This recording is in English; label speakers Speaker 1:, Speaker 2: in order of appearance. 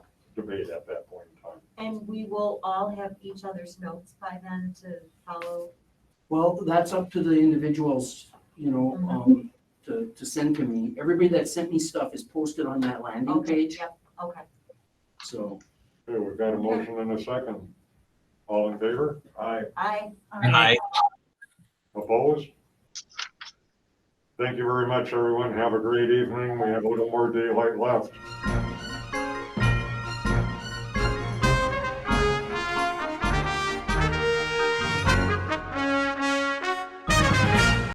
Speaker 1: debate at that point in time.
Speaker 2: And we will all have each other's notes by then to follow.
Speaker 3: Well, that's up to the individuals, you know, um, to, to send to me. Everybody that sent me stuff is posted on that landing
Speaker 2: Okay,
Speaker 3: page,
Speaker 2: Yep, okay.
Speaker 3: so.
Speaker 1: Okay, we've got a motion and a second. All in favor? Aye.
Speaker 2: I,
Speaker 4: Aye.
Speaker 1: Opposed? Thank you very much, everyone. Have a great evening. We have a little more daylight left.